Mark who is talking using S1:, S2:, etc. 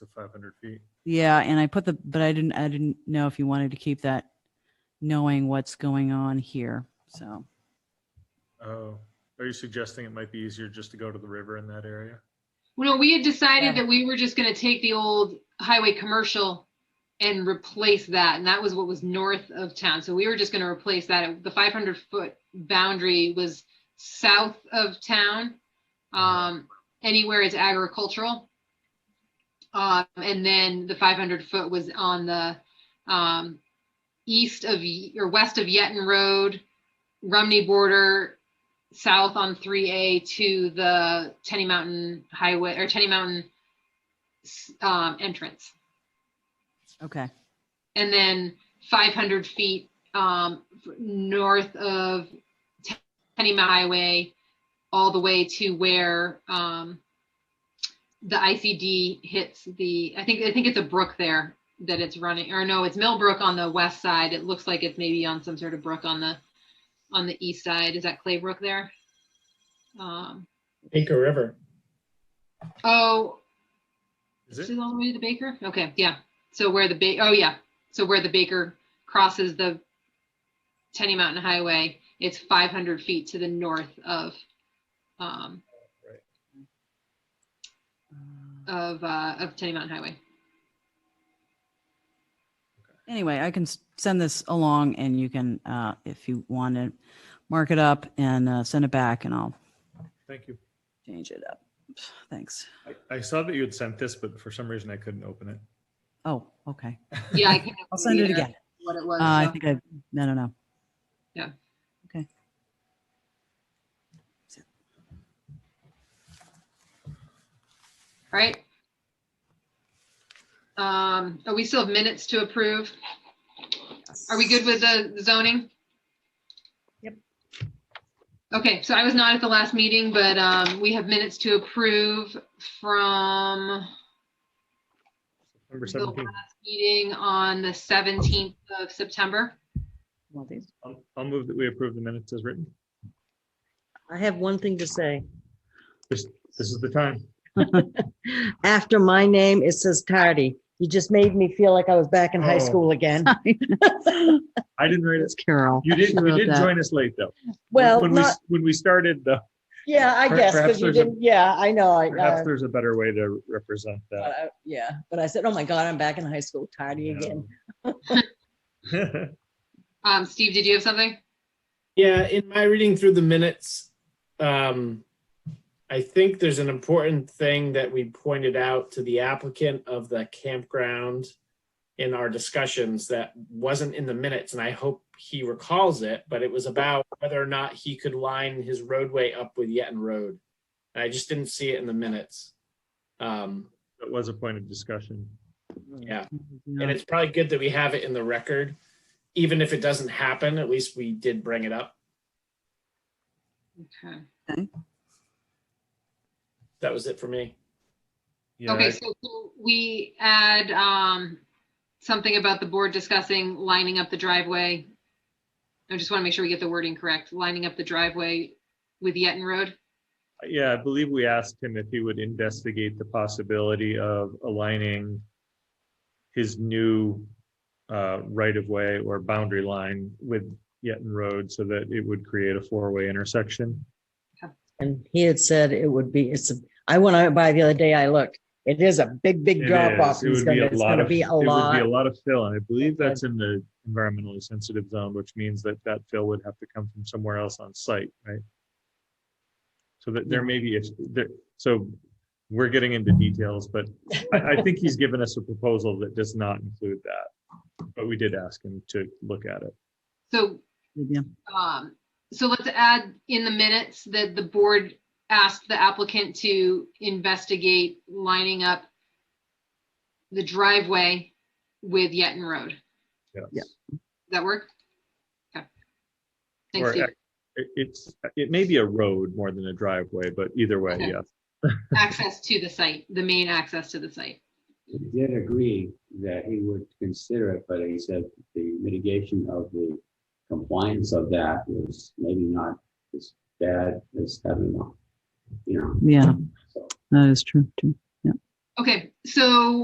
S1: to five hundred feet.
S2: Yeah, and I put the, but I didn't, I didn't know if you wanted to keep that knowing what's going on here. So,
S1: Oh, are you suggesting it might be easier just to go to the river in that area?
S3: Well, no, we had
S2: Yeah.
S3: decided that we were just gonna take the old highway commercial and replace that, and that was what was north of town, so we were just gonna replace that. The five hundred foot boundary was south of town. Um, anywhere it's agricultural. Um, and then the five hundred foot was on the, um, east of, Ye- or west of Yeton Road, Rumney border, south on three A to the Tenny Mountain Highway or Tenny Mountain s- um, entrance.
S2: okay.
S3: And then five hundred feet um, f- north of Ten- Tenny Mountain Highway, all the way to where um, the ICD hits the, I think, I think it's a brook there that it's running, or no, it's Millbrook on the west side. It looks like it's maybe on some sort of brook on the, on the east side. Is that Clay Brook there? Um,
S4: Inca River.
S3: Oh,
S1: Is
S3: this
S1: it?
S3: is all the way to the Baker? Okay, yeah. So where the ba, oh yeah, so where the Baker crosses the Tenny Mountain Highway, it's five hundred feet to the north of, um, of, uh, of Tenny Mountain Highway.
S2: Anyway, I can s- send this along and you can, uh, if you want to mark it up and, uh, send it back and I'll
S1: Thank you.
S2: change it up. Thanks.
S1: I, I saw that you had sent this, but for some reason I couldn't open it.
S2: Oh, okay.
S3: Yeah, I can't.
S2: I'll send it
S3: remember
S2: again.
S3: What it
S2: Uh,
S3: was.
S2: I
S3: so-
S2: think I, I don't know.
S3: Yeah.
S2: Okay.
S3: All right. Um, oh, we still have minutes to approve. Are we good with the zoning?
S5: Yep.
S3: Okay, so I was not at the last meeting, but um, we have minutes to approve from
S5: uh,
S1: Number
S3: the
S1: seventeen,
S3: last meeting on the 17th of September.
S5: Well, these-
S1: I'll, I'll move that we approve the minutes as written.
S5: I have one thing to say.
S1: This is the time.
S5: After my name, it says tardy. You just made me feel like I was back in high
S1: Oh.
S5: school again.
S1: I didn't read it.
S5: It's Carol.
S1: You did,
S5: She
S1: you
S5: wrote
S1: did
S5: that.
S1: join us late though. When-
S5: Well,
S1: When we,
S5: not,
S1: s- when we started the,
S5: yeah, I
S1: per-
S5: guess,
S1: perhaps
S5: because you
S1: there's a-
S5: didn't, yeah, I know. I,
S1: perhaps
S5: uh,
S1: there's a better way to represent
S5: but
S1: that.
S5: I- Yeah, but I said, oh my God, I'm back in high school, tardy
S1: Yeah.
S5: again.
S3: Um, Steve, did you have something?
S4: Yeah, in my reading through the minutes, um, I think there's an important thing that we pointed out to the applicant of the campground in our discussions that wasn't in the minutes, and I hope he recalls it, but it was about whether or not he could line his roadway up with Yeton Road. And I just didn't see it in the minutes. Um,
S1: That was a point of discussion.
S4: yeah. And it's probably good that we have it in the record. Even if it doesn't happen, at least we did bring it up.
S3: Okay.
S4: That was it for me.
S1: Yeah,
S3: Okay,
S1: I-
S3: so so we add um, something about the board discussing lining up the driveway. I just want to make sure we get the wording correct, lining up the driveway with Yeton Road.
S1: Yeah, I believe we asked him if he would investigate the possibility of aligning his new uh, right-of-way or boundary line with Yeton Road so that it would create a four-way intersection.
S5: And he had said it would be, it's, a- I went out by the other day, I looked, it is a big, big
S1: It
S5: drop off.
S1: is. It
S5: It's
S1: would be
S5: gonna
S1: a
S5: it's
S1: lot
S5: gonna
S1: of-
S5: be a
S1: It would be
S5: lot.
S1: a lot of fill, and I believe that's in the environmentally sensitive zone, which means that that fill would have to come from somewhere else on site, right? So that there may be, if, there, so we're getting into details, but I, I think he's given us a proposal that does not include that. But we did ask him to look at it.
S3: So
S2: Yeah.
S3: Um, so let's add in the minutes that the board asked the applicant to investigate lining up the driveway with Yeton Road. Does
S1: Yes.
S3: that work? Okay. Thanks,
S1: Or
S3: Steve.
S1: ac- It, it's, it may be a road more than a driveway, but either way,
S3: Okay.
S1: yes.
S3: Access to the site, the main access to the site.
S6: He did agree that he would consider it, but he said the mitigation of the compliance of that was maybe not as bad as having, a, you know,
S2: Yeah,
S6: so.
S2: that is true too.
S3: Okay, so